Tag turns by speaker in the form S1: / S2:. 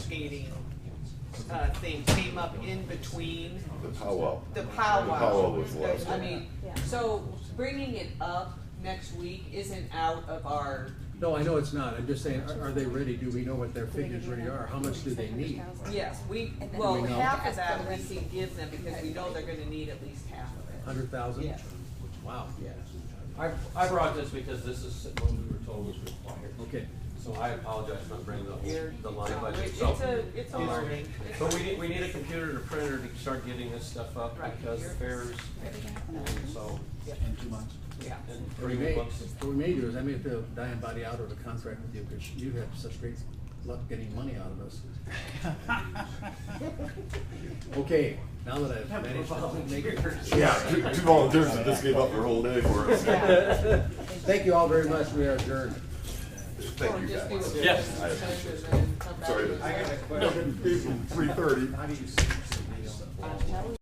S1: rotating uh, thing came up in between
S2: The powwow.
S1: the
S2: The powwow
S1: powwow.
S2: was last
S1: I
S2: one.
S1: mean,
S3: Yeah.
S1: so bringing it up next week isn't out of our,
S4: No, I know it's not, I'm just saying, are, are they ready, do we know what their figures really are, how much do they need?
S1: yes, we,
S3: And then
S1: well,
S4: we know.
S1: half of that we can give them because we know they're gonna need at least half of it.
S4: Hundred thousand?
S1: Yeah.
S4: Wow,
S1: Yeah.
S5: I, I brought this because this is what we were told was required.
S4: okay,
S5: So I apologize for bringing the whole,
S1: You're-
S5: the line budget,
S1: Um, It's
S5: so.
S1: a, it's a
S5: um,
S1: learning.
S5: But we need, we need a computer and a printer to start getting this stuff up
S1: Right,
S5: because the
S1: you're-
S5: fairs, and so,
S6: in two months.
S1: Yeah.
S5: and
S4: what we may,
S5: bringing
S4: what
S5: books.
S4: we may do is, I may have to die and body out of the contract with you, because you have such great luck getting money out of us. Okay, now that I've managed to make it.
S2: Yeah, two, two volunteers that just gave up their whole day for us.
S4: Thank you all very much, we are adjourned.
S1: Or
S2: Thank you
S1: just do
S2: guys.
S1: a-
S5: Yes.
S2: I appreciate it. Sorry.
S6: I got a
S2: Three thirty.
S6: How do you see it?